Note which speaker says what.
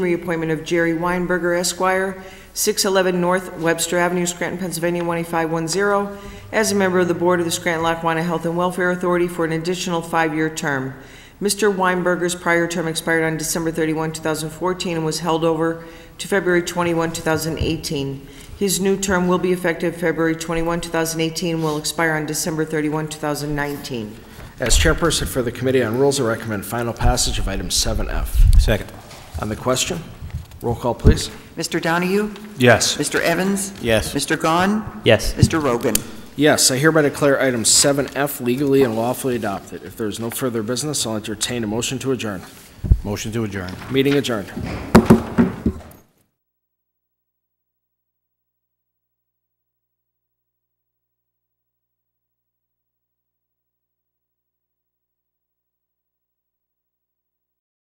Speaker 1: Reappointment of Jerry Weinberger Esquire, 611 North Webster Avenue, Scranton, Pennsylvania, 18510, as a member of the Board of the Scranton-Lackawanna Health and Welfare Authority for an additional five-year term. Mr. Weinberger's prior term expired on December 31, 2014, and was held over to February 21, 2018. His new term will be effective February 21, 2018, and will expire on December 31, 2019.
Speaker 2: As chairperson for the Committee on Rules, I recommend final passage of item 7F.
Speaker 3: Second.
Speaker 2: On the question, roll call, please.
Speaker 4: Mr. Donahue?
Speaker 3: Yes.
Speaker 4: Mr. Evans?
Speaker 3: Yes.
Speaker 4: Mr. Gahn?
Speaker 3: Yes.
Speaker 4: Mr. Rogan?
Speaker 2: Yes, I hereby declare item 7F legally and lawfully adopted. If there is no further business, I'll entertain a motion to adjourn.
Speaker 3: Motion to adjourn.
Speaker 2: Meeting adjourned.